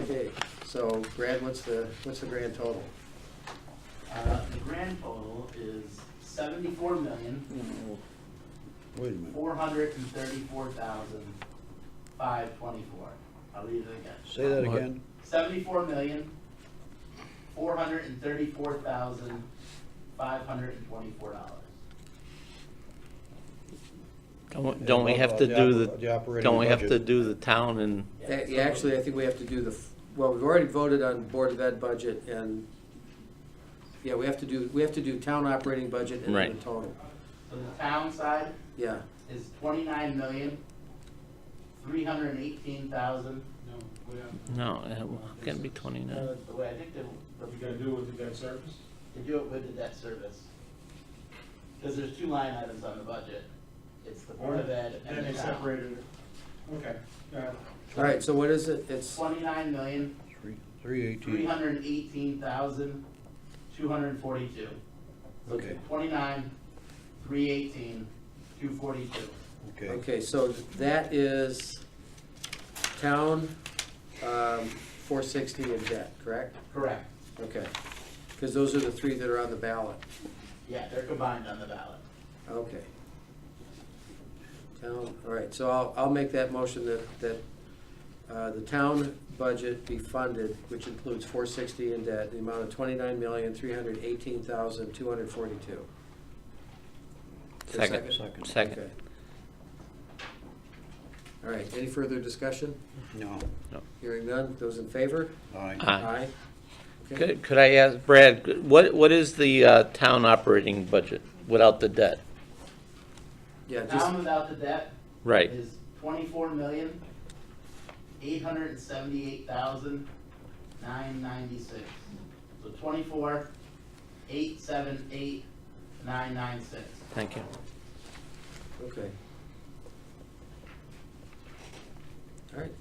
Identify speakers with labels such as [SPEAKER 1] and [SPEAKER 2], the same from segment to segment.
[SPEAKER 1] Okay, so Brad, what's the, what's the grand total?
[SPEAKER 2] Uh, The grand total is seventy-four million,
[SPEAKER 3] Wait a minute,
[SPEAKER 2] four hundred and thirty-four thousand, five twenty-four. I'll read it again.
[SPEAKER 3] say that
[SPEAKER 4] What?
[SPEAKER 3] again,
[SPEAKER 2] Seventy-four million, four hundred and thirty-four thousand, five hundred and twenty-four dollars.
[SPEAKER 4] Don't don't we
[SPEAKER 3] Yeah,
[SPEAKER 4] have
[SPEAKER 3] well,
[SPEAKER 4] to
[SPEAKER 3] the
[SPEAKER 4] do
[SPEAKER 3] oper- the
[SPEAKER 4] the,
[SPEAKER 3] operating
[SPEAKER 4] don't we have to
[SPEAKER 3] budget.
[SPEAKER 4] do the town and,
[SPEAKER 1] A- yeah, Actually, I think we have to do the, f- well, we've already voted on Board of Ed budget and, yeah, we have to do, we have to do town operating budget and then
[SPEAKER 4] Right.
[SPEAKER 1] the total.
[SPEAKER 2] So the town side
[SPEAKER 1] Yeah,
[SPEAKER 2] is twenty-nine million, three hundred and eighteen thousand.
[SPEAKER 5] No, we have,
[SPEAKER 4] no, uh, it can't be
[SPEAKER 2] No,
[SPEAKER 4] 29.
[SPEAKER 2] the way I think they,
[SPEAKER 5] you gotta do it with the debt service.
[SPEAKER 2] they do it with the debt service. Because there's two line items on the budget. It's the Board of Ed and the
[SPEAKER 5] Then they
[SPEAKER 2] town.
[SPEAKER 5] separated it. Okay, got it.
[SPEAKER 1] all right, so what is it? It's,
[SPEAKER 2] Twenty-nine million,
[SPEAKER 3] three, three
[SPEAKER 2] three
[SPEAKER 3] eighteen,
[SPEAKER 2] hundred and eighteen thousand, two hundred and forty-two. So
[SPEAKER 3] Okay.
[SPEAKER 2] twenty-nine, three eighteen, two forty-two.
[SPEAKER 3] okay.
[SPEAKER 1] okay, so that is town, um, four sixty and debt, correct?
[SPEAKER 2] Correct.
[SPEAKER 1] Okay, because those are the three that are on the ballot.
[SPEAKER 2] Yeah, they're combined on the ballot.
[SPEAKER 1] Okay. Town, all right, so I'll, I'll make that motion that, that uh, the town budget be funded, which includes four sixty in debt, the amount of twenty-nine million, three hundred eighteen thousand, two hundred forty-two.
[SPEAKER 4] Second. Second.
[SPEAKER 1] All right, any further discussion?
[SPEAKER 3] No,
[SPEAKER 1] Hearing none, those in favor?
[SPEAKER 3] aye,
[SPEAKER 4] Aye.
[SPEAKER 1] Okay.
[SPEAKER 4] Could could I ask, Brad, what, what is the uh, town operating budget without the debt?
[SPEAKER 1] Yeah, just,
[SPEAKER 2] Town without the debt
[SPEAKER 4] Right,
[SPEAKER 2] is twenty-four million, eight hundred and seventy-eight thousand, nine ninety-six. So twenty-four, eight, seven, eight, nine, nine, six.
[SPEAKER 4] thank you.
[SPEAKER 1] okay. All right,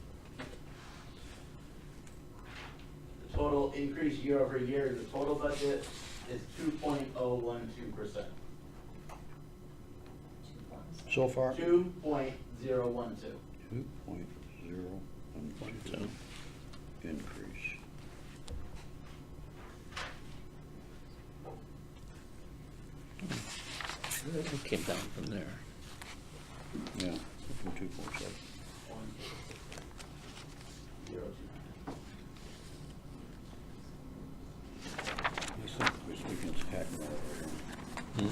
[SPEAKER 2] The total increase year over year in the total budget is two point oh one two percent.
[SPEAKER 3] so far, two
[SPEAKER 2] Two point zero one two.
[SPEAKER 3] point zero one two increase.
[SPEAKER 4] It came down from there.
[SPEAKER 3] Yeah, from two point seven.
[SPEAKER 2] Zero two nine.
[SPEAKER 3] I think we're speaking to Hackman over here. Hmm. Let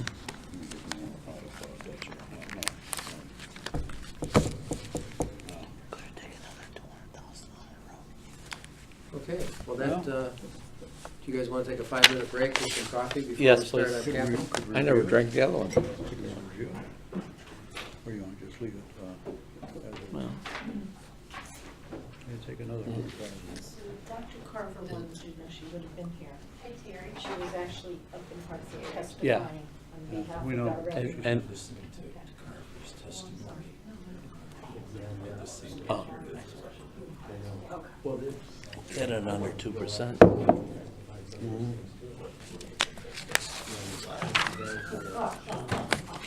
[SPEAKER 3] me get my own out of uh, thought, that's it. No, no, no. No.
[SPEAKER 1] okay, well, that, uh, do you guys want to take a five-minute break, get some coffee before we
[SPEAKER 4] Yes,
[SPEAKER 1] start
[SPEAKER 4] please.
[SPEAKER 1] on capital?
[SPEAKER 4] I never drank the other one.
[SPEAKER 3] Or you want to just leave it, uh, as it-
[SPEAKER 4] Well,
[SPEAKER 3] Yeah, take another hundred thousand.
[SPEAKER 6] So Dr. Carver wanted to know, she would have been here. Hi, Terry. She was actually up in Hartford
[SPEAKER 4] Yeah.
[SPEAKER 6] testifying
[SPEAKER 3] Yeah,
[SPEAKER 6] on behalf
[SPEAKER 3] we
[SPEAKER 6] of
[SPEAKER 3] know.
[SPEAKER 6] our residents.
[SPEAKER 4] And, and- oh. Get it under 2%.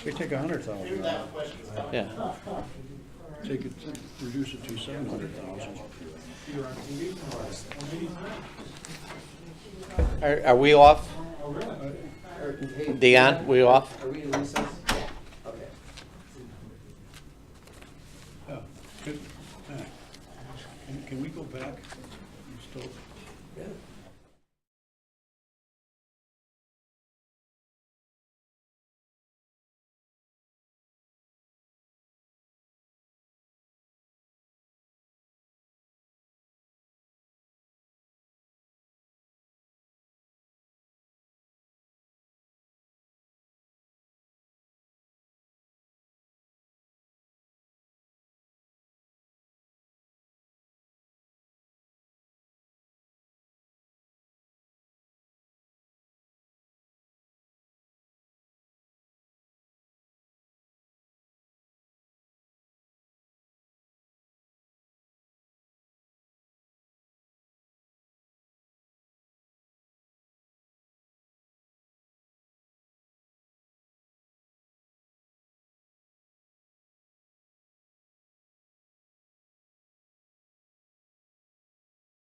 [SPEAKER 3] We take a hundred
[SPEAKER 2] Here's
[SPEAKER 3] thousand,
[SPEAKER 2] that question that's coming.
[SPEAKER 4] Yeah.
[SPEAKER 3] take it, reduce it to seven hundred thousand.
[SPEAKER 5] You're on TV tomorrow. Oh, maybe it's not.
[SPEAKER 4] Are are we off?
[SPEAKER 5] Oh, really?
[SPEAKER 1] Or- hey,
[SPEAKER 4] Dion, we off?
[SPEAKER 1] Are we in recess? Okay.
[SPEAKER 3] Oh, good. All right. Can- Can we go back? You still-